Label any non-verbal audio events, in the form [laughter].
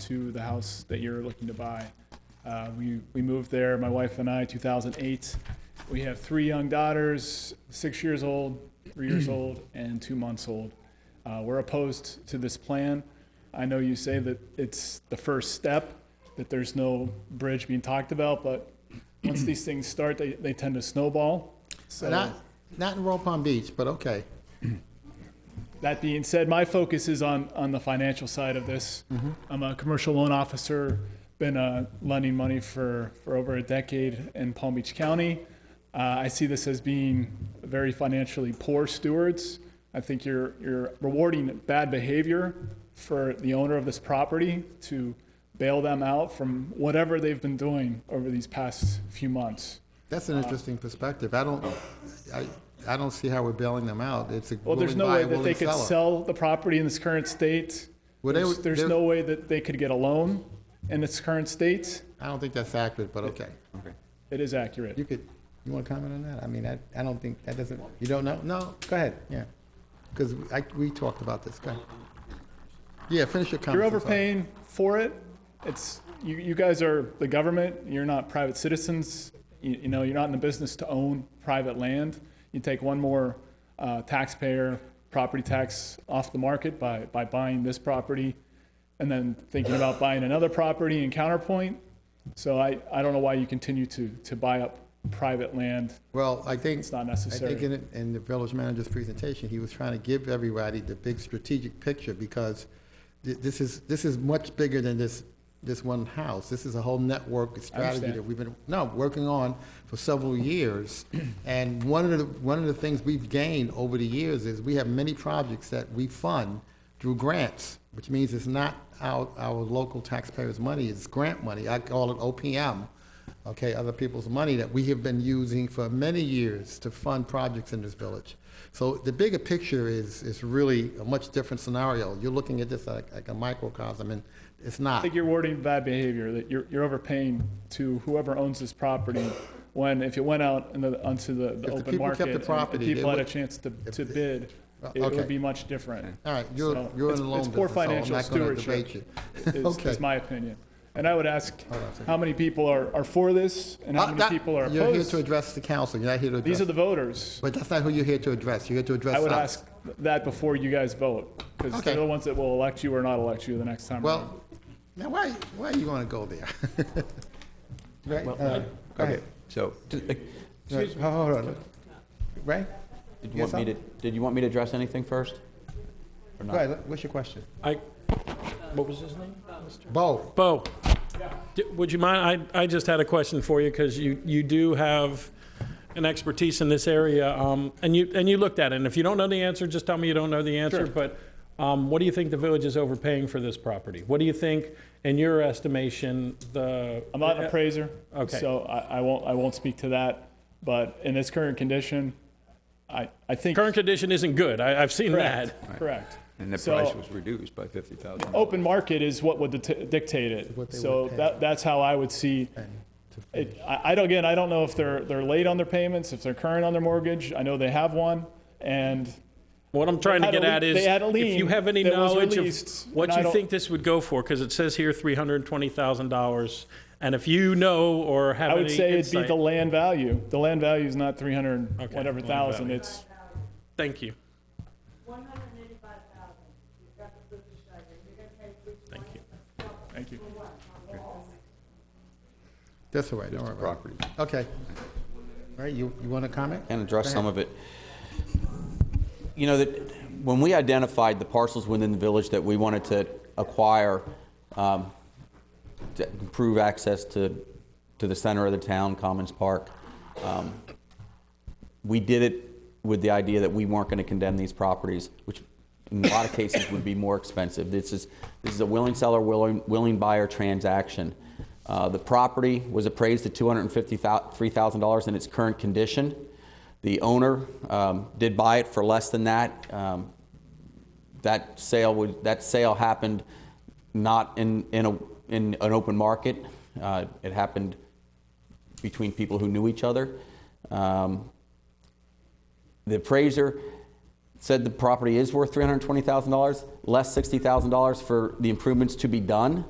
to the house that you're looking to buy. Uh, we, we moved there, my wife and I, 2008. We have three young daughters, six years old, three years old, and two months old. Uh, we're opposed to this plan. I know you say that it's the first step, that there's no bridge being talked about, but once these things start, they, they tend to snowball. So. Not, not in Royal Palm Beach, but okay. That being said, my focus is on, on the financial side of this. I'm a commercial loan officer, been uh, lending money for, for over a decade in Palm Beach County. Uh, I see this as being very financially poor stewards. I think you're, you're rewarding bad behavior for the owner of this property to bail them out from whatever they've been doing over these past few months. That's an interesting perspective. I don't, I, I don't see how we're bailing them out. It's a Well, there's willing no buyer, way that they willing could seller. sell the property in this current state. Well, they There's, would- there's they- no way that they could get a loan in its current state. I don't think that's accurate, but okay. It is accurate. You could, you want to comment on that? I mean, I, I don't think, that doesn't, you don't know? No, go ahead, yeah. Because I, we talked about this, go ahead. Yeah, finish You're your comments. I'm sorry. overpaying for it. It's, you, you guys are the government, you're not private citizens. You, you know, you're not in the business to own private land. You take one more uh, taxpayer, property tax off the market by, by buying this property and then thinking about buying another property in Counterpoint. So I, I don't know why you continue to, to buy up private land. Well, I think. It's not necessary. I think in, in the village manager's presentation, he was trying to give everybody the big strategic picture because thi- this is, this is much bigger than this, this one house. This is a whole network of strategy understand. that we've been, no, working on for several years. [clears throat] And one of the, one of the things we've gained over the years is we have many projects that we fund through grants, which means it's not our, our local taxpayers' money, it's grant money. I call it OPM okay, other people's money that we have been using for many years to fund projects in this village. So the bigger picture is, is really a much different scenario. You're looking at this like, like a microcosm, and it's I not. think you're rewarding bad behavior, that you're, you're overpaying to whoever owns this property, when if it went out in the, onto the, the the open people market. kept the and- and property, they People had a would- chance to, to they- bid, Well, it okay. would be much different. All right, you're, So you're in it's- the loan it's poor business, so I'm financial not going to stewardship. debate you. is, Okay. is my opinion. And I would ask, on a second. how many people are, are for this, and how Uh, many that- people are You're here to opposed? address the council, you're not here to These address, are the voters. but that's not who you're here to address. You're here to address I would us. ask that before you guys vote, because Okay. they're the ones that will elect you or not elect you the next time. around. Well, now, why, why you want to go there? [laughs] Right, uh, go ahead. So, did No, Hold on, Ray? did Yes, you want me sir? to, did you want me to address anything first? Or Go not? ahead, what's your question? I, what was his name? Bo, Bo, d- would you mind, I, I just had a question for you, because you, you do have an expertise in this area, um, and you, and you looked at it, and if you don't know the answer, just tell me you don't know the answer, but, um, what do you think the village is overpaying for this property? What do you think, in your estimation, the? uh, I'm not an appraiser, Okay. so I, I won't, I won't speak to that, but in its current condition, I, I think. Current condition isn't good, I, I've seen that. Correct, correct. And the So, price was reduced by $50,000. Open market is what would det- dictate it, What they so would pay. that, that's how I would see. It, I, I don't, again, I don't know if they're, they're late on their payments, if they're current on their mortgage, I know they have one, and What I'm trying to had a get at lien- they is, had a if you lien have any that was knowledge released, of and what I you don't- think this would go for, because it says here $320,000, and if you know or I have any would say it'd be insight- the land value. The land value is not three hundred and Okay, whatever land thousand, value. it's, Thank you. One hundred and eighty-five thousand, you've got the food and sugar, you're gonna pay three Thank you. thank you. that's all right, don't worry about it. Property. Okay. All right, you, you want to comment? And address some of it. You know, that, when we identified the parcels within the village that we wanted to acquire, um, to improve access to, to the center of the town, Commons Park, um, we did it with the idea that we weren't going to condemn these properties, which in a lot of cases would be more expensive. This is, this is a willing seller, willing, willing buyer transaction. Uh, the property was appraised at $253,000 in its current condition. The owner um, did buy it for less than that. Um, that sale would, that sale happened not in, in, a, in an open market. Uh, it happened between people who knew each other. Um, the appraiser said the property is worth $320,000, less $60,000 for the improvements to be done.